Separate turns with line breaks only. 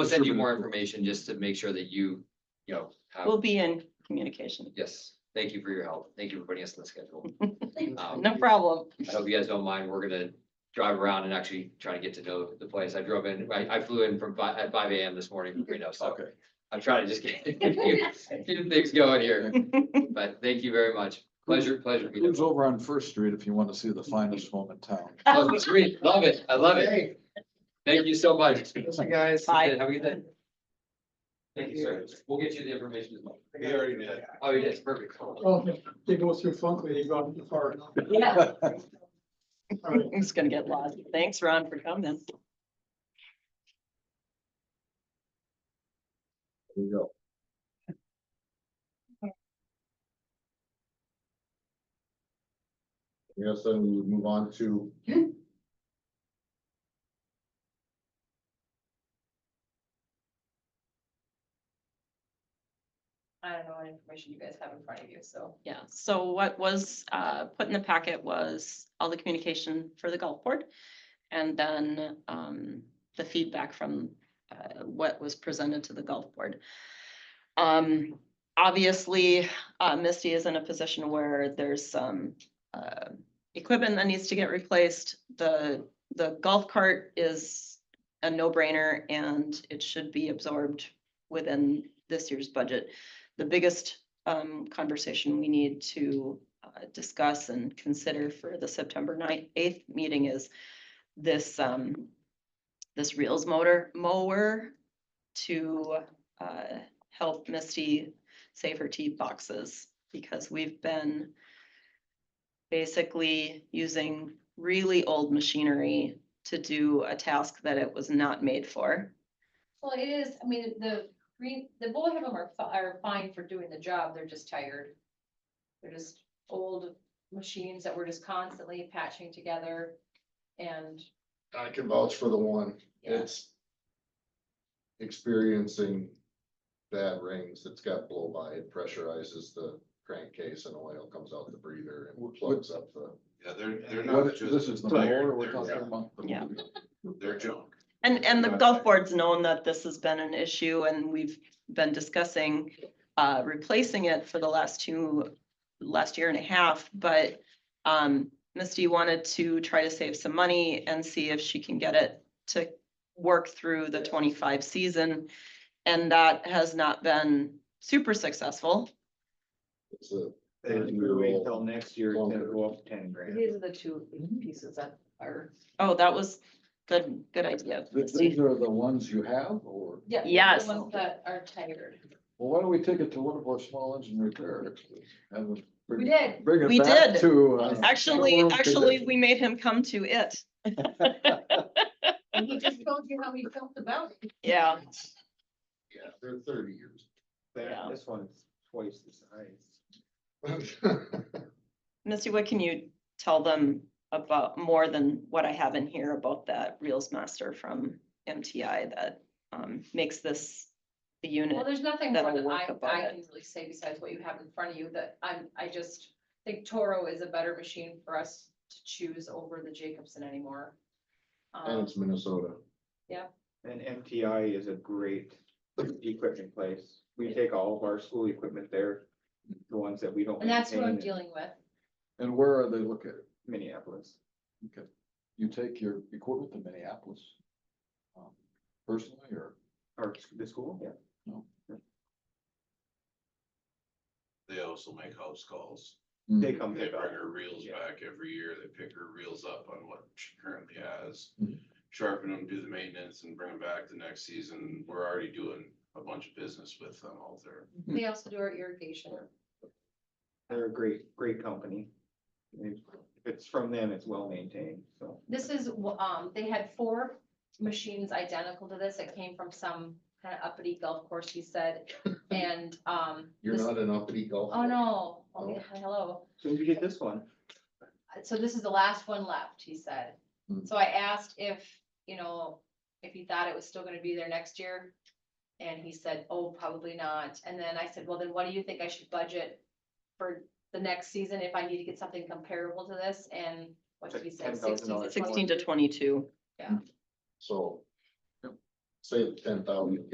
We'll send you more
Distributed.
information just to make sure that you, you know, have,
We'll be in communication.
yes, thank you for your help. Thank you for putting us on the schedule. Um,
No problem.
I hope you guys don't mind. We're gonna drive around and actually try to get to know the place. I drove in, I, I flew in from five, at five AM this morning from Reno, so
Okay.
I'm trying to just get, get things going here. But thank you very much. Pleasure, pleasure. to meet
It's
you.
over on First Street if you want to see the finest home in town.
Oh, it's great. Love it. I love it. Thank you so much. guys.
Bye.
Have a good day. Thank you, sir. We'll get you the information. as well.
We already did.
Oh, yes, perfect.
Well, if they go through Funkley, they go out the park.
Yeah. I'm just gonna get lost. Thanks, Ron, for coming.
There you go.
Yes, then we would move on to.
I don't know what information you guys have in front of you, so.
Yeah, so what was uh put in the packet was all the communication for the golf board. And then um the feedback from uh what was presented to the golf board. Um, obviously, uh Misty is in a position where there's some uh equipment that needs to get replaced. The the golf cart is a no-brainer and it should be absorbed within this year's budget. The biggest um, conversation we need to uh, discuss and consider for the September ninth, eighth meeting is this, um, this reels motor mower to, uh, help Misty save her tee boxes because we've been basically using really old machinery to do a task that it was not made for.
Well, it is, I mean, the green, the both of them are, fi- are fine for doing the job, they're just tired. They're just old machines that we're just constantly patching together and,
uh, I can vouch for the one.
yeah,
It's. Experiencing bad rings, it's got blow by, it pressurizes the crankcase and oil comes out the breather and plugs up the.
Yeah, they're, they're
What-
not just.
This is the
tired,
mower we're
they're-
talking about. the-
Yeah.
They're junk.
And, and the
Right.
golf board's known that this has been an issue and we've been discussing uh, replacing it for the last two, last year and a half, but um, Misty wanted to try to save some money and see if she can get it to work through the twenty-five season. And that has not been super successful.
It's a,
If we wait until next year, it's gonna go up ten grand.
these are the two
Mm-hmm.
pieces that are.
Oh, that was good, good idea.
Th-
Misty.
These are the ones you have, or,
Yeah. they're
Yes.
The ones that are tired.
well, why don't we take it to one of our small engine repair? Have them
We
bring-
did,
Bring
We
it back
did.
to. uh,
Actually,
world
actually,
today.
we made him come to it.
and he just told you how he felt about it.
Yeah.
yeah, they're thirty years.
Yeah.
That- This one's twice the size.
Misty, what can you tell them about more than what I have in here about that Reels Master from MTI that um makes this the
Well,
unit?
there's nothing more
that'll
that
work
I,
about
I
it.
can really say besides what you have in front of you, that I'm, I just think Toro is a better machine for us to choose over the Jacobson anymore.
And
Um,
it's Minnesota.
And MTI is a great equipment place. We take all of our school equipment there, the ones that we don't.
and that's who I'm
maintain in
dealing with.
And where are they located?
Minneapolis.
Okay, you take your equipment to Minneapolis? um, Personally, or?
Or the school, yeah.
Mm-hmm.
They also make house calls.
They come
They
pick
bring
up.
her reels
Yeah.
back every year. They pick her reels up on what she currently has.
Mhm.
Sharpen them, do the maintenance and bring them back the next season. We're already doing a bunch of business with them out there.
Hmm.
They also do our irrigation.
They're a great, great company. If it's from them, it's well maintained, so.
This is, wh- um, they had four machines identical to this. It came from some kind of uppity golf course, he said. And, um,
You're
this-
not an uppity golfer.
oh, no, oh,
No.
yeah, hello.
Soon as you get this one,
so this is the last one left, he said.
Hmm.
So I asked if, you know, if he thought it was still gonna be there next year. And he said, oh, probably not. And then I said, well, then what do you think I should budget for the next season if I need to get something comparable to this? And what did he say?
$10,000
Sixteen to twenty-two.
So.
say the ten thousand